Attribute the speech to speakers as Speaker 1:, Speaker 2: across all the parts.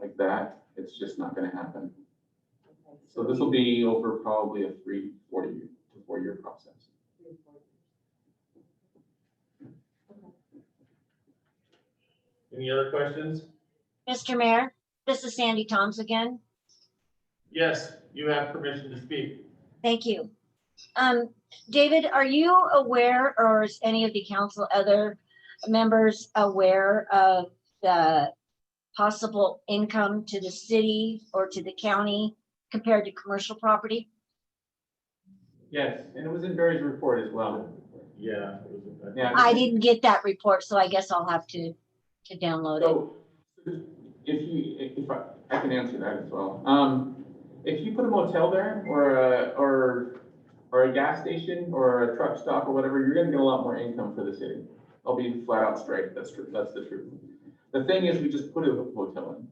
Speaker 1: like that, it's just not gonna happen. So this will be over probably a three, four year, to four year process.
Speaker 2: Any other questions?
Speaker 3: Mr. Mayor, this is Sandy Toms again.
Speaker 2: Yes, you have permission to speak.
Speaker 3: Thank you. Um, David, are you aware or is any of the council other members aware of the possible income to the city or to the county compared to commercial property?
Speaker 1: Yes, and it was in Barry's report as well.
Speaker 2: Yeah.
Speaker 1: Yeah.
Speaker 3: I didn't get that report, so I guess I'll have to, to download it.
Speaker 1: So if you, if I, I can answer that as well. Um, if you put a motel there or a, or, or a gas station or a truck stop or whatever, you're gonna get a lot more income for the city. I'll be flat out straight. That's true. That's the truth. The thing is, we just put a hotel in.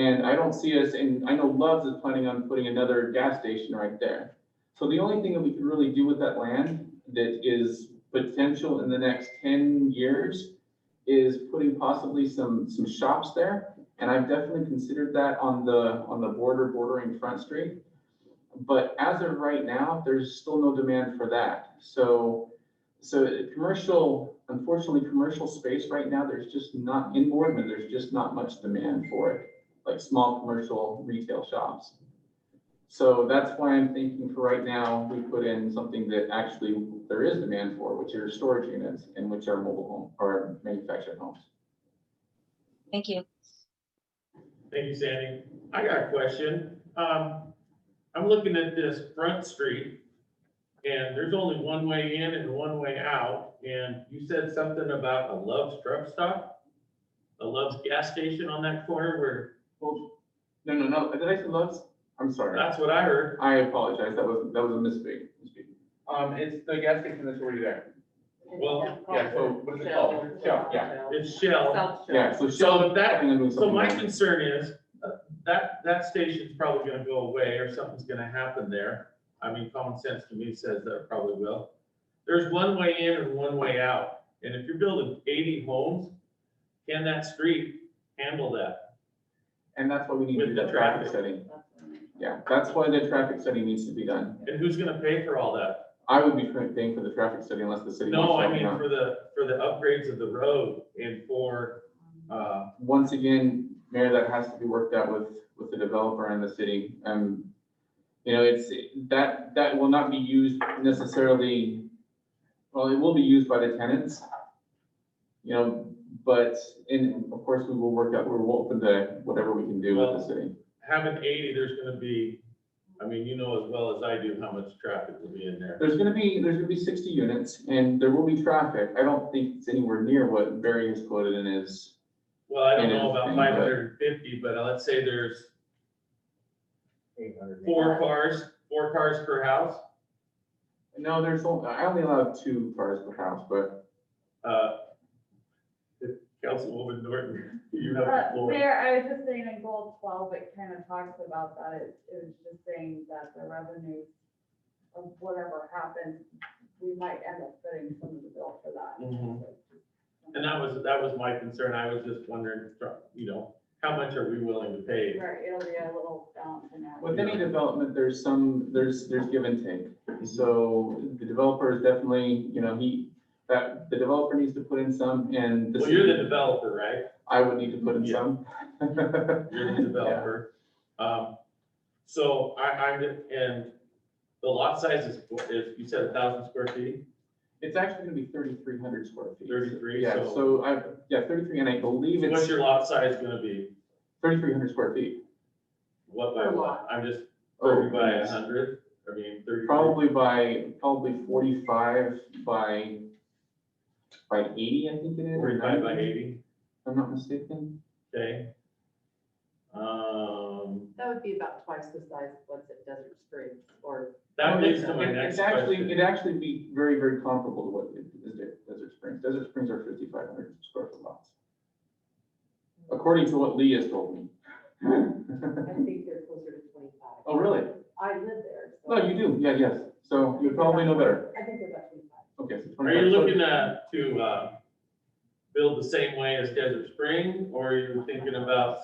Speaker 1: And I don't see us, and I know Love's is planning on putting another gas station right there. So the only thing that we can really do with that land that is potential in the next ten years is putting possibly some, some shops there. And I've definitely considered that on the, on the border bordering Front Street. But as of right now, there's still no demand for that. So, so it- commercial, unfortunately, commercial space right now, there's just not, in Boardman, there's just not much demand for it, like small commercial retail shops. So that's why I'm thinking for right now, we put in something that actually there is demand for, which are storage units and which are mobile home or manufactured homes.
Speaker 3: Thank you.
Speaker 2: Thank you, Sandy. I got a question. Um, I'm looking at this front street and there's only one way in and one way out. And you said something about a Love's truck stop? A Love's gas station on that corner where,
Speaker 1: Well, no, no, no, did I say Love's? I'm sorry.
Speaker 2: that's what I heard.
Speaker 1: I apologize. That was, that was a misspeak. misspeak. Um, it's the gas station that's already there.
Speaker 2: Well,
Speaker 1: Yeah, so what is it called? Shell, yeah.
Speaker 2: It's Shell.
Speaker 4: South Shore.
Speaker 1: Yeah, so Shell, I think I'm doing
Speaker 2: So
Speaker 1: something
Speaker 2: my
Speaker 1: wrong.
Speaker 2: concern is, uh, that, that station's probably gonna go away or something's gonna happen there. I mean, common sense to me says that it probably will. There's one way in and one way out. And if you're building eighty homes, can that street handle that?
Speaker 1: And that's why we need to do
Speaker 2: With the
Speaker 1: that traffic
Speaker 2: traffic.
Speaker 1: study. Yeah, that's why the traffic study needs to be done.
Speaker 2: And who's gonna pay for all that?
Speaker 1: I would be paying for the traffic study unless the city.
Speaker 2: No,
Speaker 1: wants to
Speaker 2: I
Speaker 1: help me
Speaker 2: mean,
Speaker 1: out.
Speaker 2: for the, for the upgrades of the road and for, uh,
Speaker 1: once again, Mayor, that has to be worked out with, with the developer and the city. Um, you know, it's, that, that will not be used necessarily, well, it will be used by the tenants. You know, but, and of course, we will work out, we're open to whatever we can do with the city.
Speaker 2: having eighty, there's gonna be, I mean, you know as well as I do how much traffic will be in there.
Speaker 1: There's gonna be, there's gonna be sixty units and there will be traffic. I don't think it's anywhere near what Barry has quoted in his,
Speaker 2: Well, I don't
Speaker 1: And
Speaker 2: know about
Speaker 1: everything,
Speaker 2: five
Speaker 1: but-
Speaker 2: hundred and fifty, but let's say there's four cars, four cars per house.
Speaker 1: no, there's, only- I only allowed two cars per house, but
Speaker 2: Uh, if Councilwoman Norton, you have the
Speaker 4: Uh,
Speaker 2: floor.
Speaker 4: Mayor, I was just saying in goal twelve, it kind of talks about that, it, it was just saying that the revenue of whatever happens, we might end up footing some of the bill for that.
Speaker 1: Mm-hmm.
Speaker 2: Mhm. And that was, that was my concern. I was just wondering, you know, how much are we willing to pay?
Speaker 4: Right, it'll be a little balance in that.
Speaker 1: With any development, there's some, there's, there's give and take. So the developer is definitely, you know, he, that, the developer needs to put in some and the
Speaker 2: Well, you're the
Speaker 1: city,
Speaker 2: developer, right?
Speaker 1: I would need to put in some.
Speaker 2: You're the developer. Um, so I, I'm, the- and the lot size is, is, you said a thousand square feet,
Speaker 1: It's actually gonna be thirty-three hundred square feet.
Speaker 2: thirty-three,
Speaker 1: Yeah,
Speaker 2: so
Speaker 1: so I, yeah, thirty-three and I believe
Speaker 2: what's
Speaker 1: it's
Speaker 2: your lot size gonna be?
Speaker 1: thirty-three hundred square feet.
Speaker 2: What by
Speaker 4: Per
Speaker 2: what?
Speaker 4: lot.
Speaker 2: I'm just,
Speaker 1: Oh,
Speaker 2: thirty by a
Speaker 1: yes.
Speaker 2: hundred, I mean, thirty.
Speaker 1: Probably by, probably forty-five by, by eighty, I think it is. or
Speaker 2: Forty-five by
Speaker 1: 90,
Speaker 2: eighty,
Speaker 1: If I'm not mistaken.
Speaker 2: okay. Um,
Speaker 5: That would be about twice the size of what's at Desert Springs or.
Speaker 2: that
Speaker 1: Well,
Speaker 2: leads to
Speaker 1: it's-
Speaker 2: my
Speaker 1: it-
Speaker 2: next
Speaker 1: it's actually-
Speaker 2: question.
Speaker 1: It'd actually be very, very comparable to what it is at Desert Springs. Desert Springs are fifty-five hundred square foot lots. According to what Lee has told me.
Speaker 5: I think they're closer to twenty-five.
Speaker 1: Oh, really?
Speaker 5: I live there. so-
Speaker 1: No, you do, yeah, yes. So you probably know better.
Speaker 5: I think they're about twenty-five.
Speaker 1: Okay. so
Speaker 2: Are
Speaker 1: 25.
Speaker 2: you
Speaker 1: So
Speaker 2: looking at, to, uh, build the same way as Desert Spring, or are you thinking about